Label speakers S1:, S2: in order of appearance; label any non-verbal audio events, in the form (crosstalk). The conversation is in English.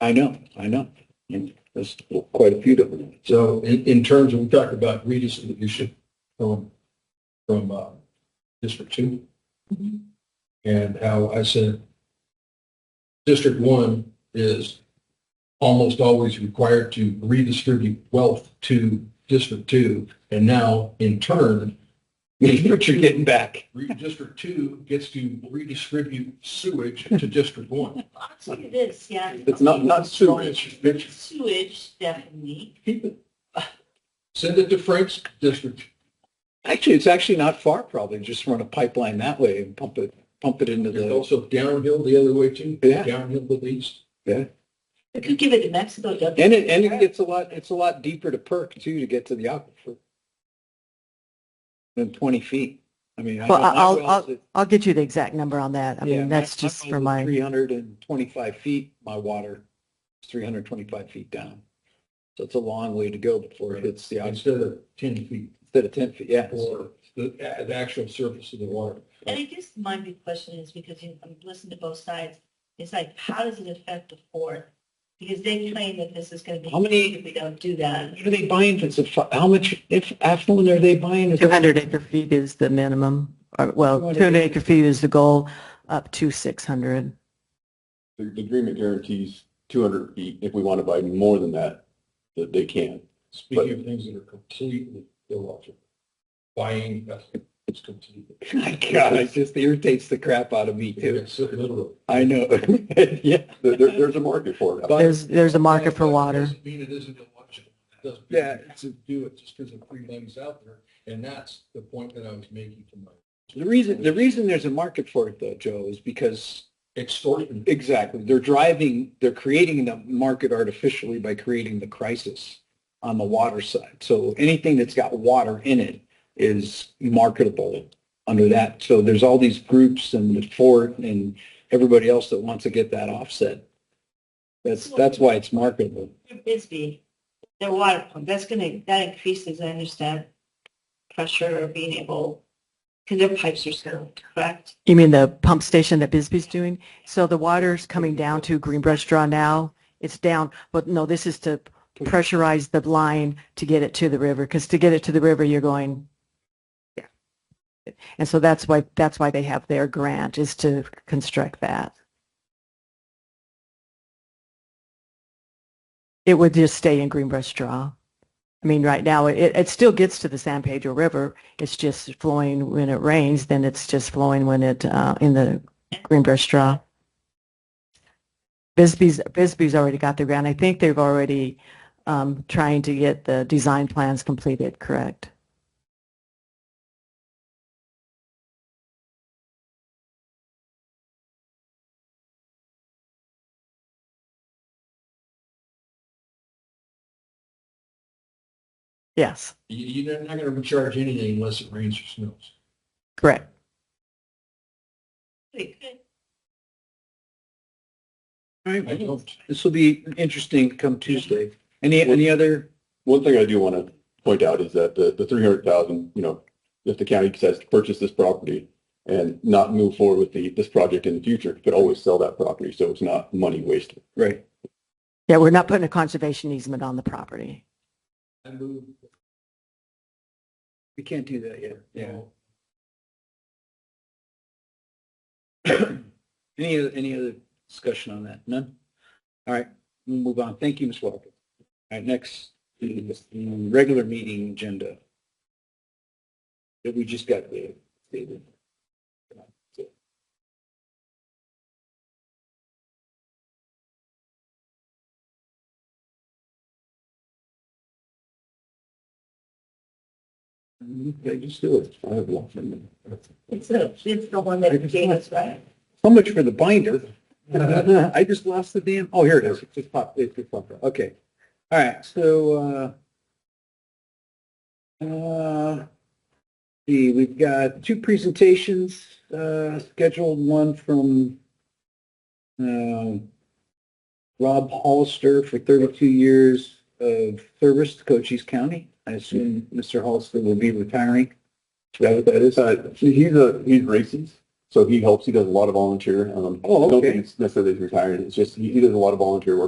S1: I know, I know. And There's quite a few different. ones.
S2: So in, in terms of, we talked about redistribution from, from uh, District Two.
S1: Mm-hmm.
S2: And how I said, District One is almost always required to redistribute wealth to District Two. And now in turn,
S1: What (laughs) you're getting back.
S2: re- District Two gets to redistribute
S1: (laughs)
S2: sewage to District One.
S3: That's what it is, yeah.
S1: It's not, not sewage.
S2: It's- it's-
S3: Sewage, definitely.
S2: Keep it. Send it to Frank's district.
S1: Actually, it's actually not far probably. Just run a pipeline that way and pump it, pump it into
S2: There's
S1: the,
S2: also downhill the other way too.
S1: Yeah.
S2: Downhill to the east.
S3: They could give it to Mexico, don't they?
S1: and it, and it gets a lot, it's a lot deeper to perk too, to get to the aquifer. Than 20 feet. I mean. I
S4: Well,
S1: know my
S4: I'll-
S1: wells
S4: I'll-
S1: that-
S4: I'll get you the exact number on that. I mean, that's just for my.
S1: Three hundred and twenty-five feet, my water is three hundred and twenty-five feet down. So it's a long way to go before it hits the, outs-
S2: Instead of ten feet
S1: instead of ten feet, yeah.
S2: or the, uh, the actual surface of the water.
S3: And I guess my big question is, because you, I'm listening to both sides, it's like, how does it affect the fourth? Because they claim that this is gonna be.
S1: How many-
S3: If we don't do that.
S1: What are they buying? If it's a, fi- how much, if affluent are they buying? Is it-
S4: 200 acre feet is the minimum, or, well,
S1: 200
S4: 200 acre feet is the goal, up to 600.
S5: The the agreement guarantees 200 feet. If we want to buy more than that, that they can.
S2: Speaking of things that are completely illogical, buying, that's, it's completely.
S1: My God, it just irritates the crap out of me too.
S2: It's literally.
S1: I know. (laughs) Yeah.
S5: There, there- there's a market for it.
S4: There's, there's a market for water.
S2: Doesn't mean it isn't illogical. It doesn't mean
S1: Yeah,
S2: you have To do it just because of free money's out there. And that's the point that I was making to my
S1: The reason, the reason there's a market for it though, Joe, is because
S2: extortion.
S1: Exactly. They're driving, they're creating the market artificially by creating the crisis on the water side. So anything that's got water in it is marketable under that. So there's all these groups and the fort and everybody else that wants to get that offset. That's, that's why it's marketable.
S3: For Bisbee, their water pump, that's gonna, that increases, I understand, pressure or being able, because their pipes are still, correct?
S4: You mean the pump station that Bisbee's doing? So the water's coming down to Greenbrush Draw now. It's down, but no, this is to pressurize the line to get it to the river, because to get it to the river, you're going, yeah. And so that's why, that's why they have their grant, is to construct that. It would just stay in Greenbrush Draw. I mean, right now, it, it still gets to the San Pedro River. It's just flowing when it rains, then it's just flowing when it, uh, in the Greenbrush Draw. Bisbee's, Bisbee's already got the grant. I think they've already, um, trying to get the design plans completed, correct? Yes,
S2: You, you're not going to recharge anything unless it rains or snows.
S4: correct.
S3: They could.
S1: All right,
S2: I
S1: well,
S2: don't.
S1: This will be interesting come Tuesday. Any, any other,
S5: One thing I do want to point out is that the, the 300,000, you know, if the county decides to purchase this property and not move forward with the, this project in the future, it could always sell that property. So it's not money wasted.
S1: right?
S4: Yeah, we're not putting a conservation easement on the property.
S2: I move
S1: We can't do that yet. Yeah. (coughs) Any, other- any other discussion on that? None? All right, we'll move on. Thank you, Ms. Walker. All right, next, is the regular meeting agenda. That we just got there. David.
S5: Yeah, just do it. I have lots of them.
S3: It's the, it's the one that gave us, right?
S1: So much for the binder. (laughs) I just lost the damn, oh, here it is. It just popped, it just popped up. Okay. All right, so, uh, uh, see, we've got two presentations, uh, scheduled, one from, um, Rob Hollister for 32 years of service to Cochise County. I assume Mr. Hollister will be retiring. Is that what that is?
S5: Uh, he's a, he's racist. So he helps. He does a lot of volunteer. Um,
S1: Oh,
S5: I don't
S1: okay.
S5: think it's necessarily he's retired. It's just, he, he does a lot of volunteer work.